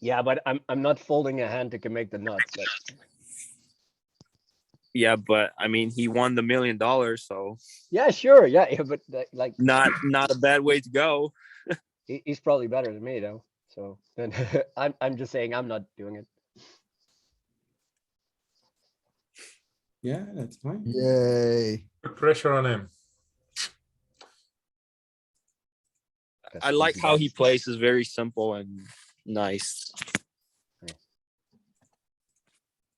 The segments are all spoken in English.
Yeah, but I'm, I'm not folding a hand that can make the nuts, but Yeah, but I mean, he won the million dollars, so yeah, sure. Yeah, yeah, but uh, like, not not a bad way to go. he, he's probably better than me though. So then I'm, I'm just saying I'm not doing it. Yeah, that's fine. Yay. Put pressure on him. That's I like easy. how he plays; is very simple and nice.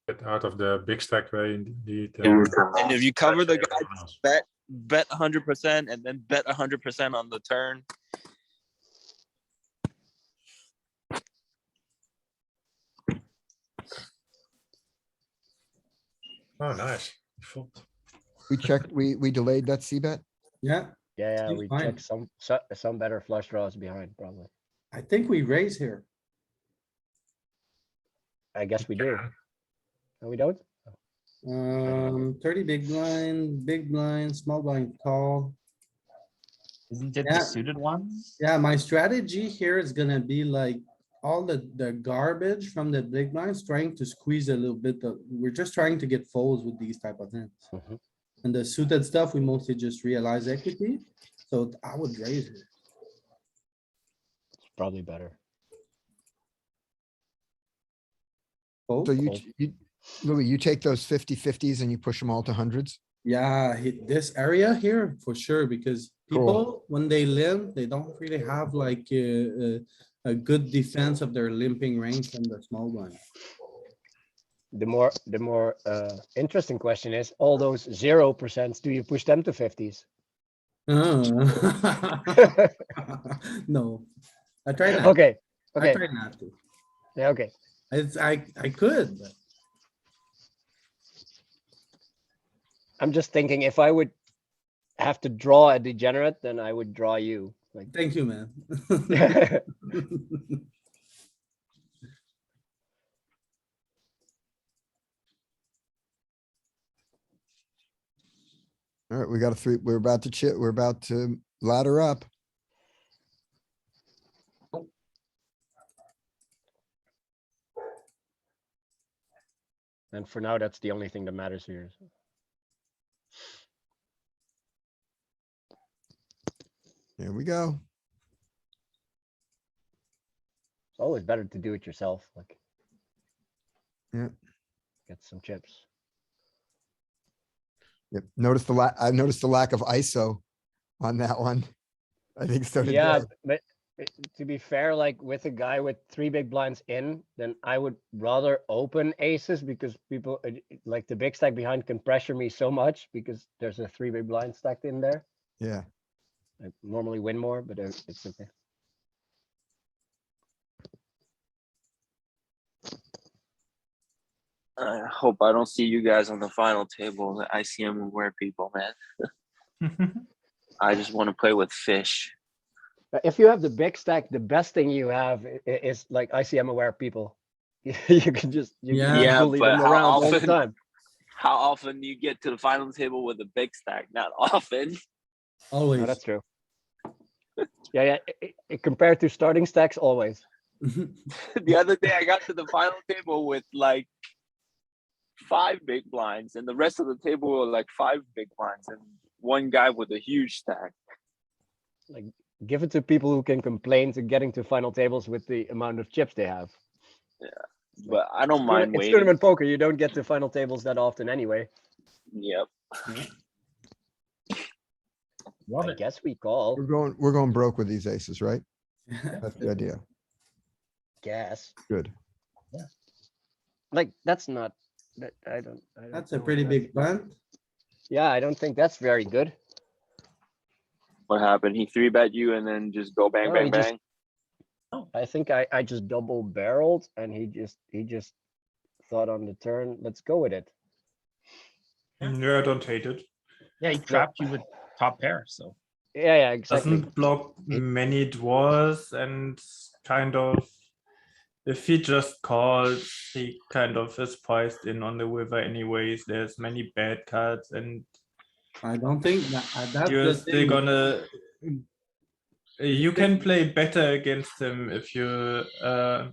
Get out of the big stack where you need. uh, And if you cover the pressure guy, everyone else. bet bet hundred percent, and then bet hundred percent on the turn. Oh, nice. You fold. We checked, we, we delayed that C bet. Yeah, Yeah, yeah, He's we fine. check some, so- some better flush draws behind probably. I think we raise here. I guess we do. Yeah. No, we don't? Uh, Um, thirty big blind, big blind, small blind call. Isn't it Yeah. the suited one? Yeah, my strategy here is gonna be like all the, the garbage from the big blinds, trying to squeeze a little bit of, we're just trying to get folds with these type of hands. Mhm. And the suited stuff, we mostly just realize equity, so I would raise it. It's probably better. Fold? So you, Cool. you, Louis, you take those 50 50s and you push them all to hundreds? Yeah, hit this area here for sure, because Cool. people, when they limp, they don't really have like a, a good defense of their limping range from the small one. The more, the more, uh, interesting question is, all those zero percents, do you push them to fifties? Uh. Okay, No, I try not, okay, I try not to. yeah, okay. It's, I, I could, but I'm just thinking if I would have to draw a degenerate, then I would draw you. Like, thank you, man. Alright, we got a three, we're about to chip, we're about to ladder up. and for now, that's the only thing that matters here. so. Here we go. It's always better to do it yourself, like. Yeah. Get some chips. Yep, notice the la, I noticed the lack of ISO on that one. I think so did Yeah, Dave. but uh, to be fair, like with a guy with three big blinds in, then I would rather open aces because people uh, like the big stack behind can pressure me so much because there's a three big blind stacked in there. Yeah, I normally win more, but uh, it's okay. I hope I don't see you guys on the final table. The ICM aware people, man. I just want to play with fish. Uh, If you have the big stack, the best thing you have i- i- is like ICM aware people. You can just, you Yeah. can just Yeah, bully but them how around all the often- time. How often do you get to the final table with a big stack? Not often. No, Always. Oh, that's true. Yeah, yeah, i- i- i- compared to starting stacks, always. the other day I got to the final table with like five big blinds, and the rest of the table were like five big blinds, and one guy with a huge stack. Give it to people who can complain to getting to final tables with the amount of chips they have. But I don't Tourna- mind It's waiting. tournament poker, you don't get to final tables that often anyway. Yep. Love I it. guess we call, we're going, we're going broke with these aces, right? That's the idea. guess. Good. Like, that's not, that, I don't. I don't That's a know if pretty that's- big blunt. Yeah, I don't think that's very good. What happened? He three bet you, and then just go bang, No, he bang, just- bang. I think I, I just double barreled and he just, he just thought on the turn, let's go with it. No, I don't hate it. Yeah, he trapped you with top pair, so. Yeah, yeah, exactly. doesn't block many draws and kind of if he just calls he kind of is priced in on the river anyways there's many bad cards and I don't think that, uh, that's you're the still thing. gonna you can play better against him if you uh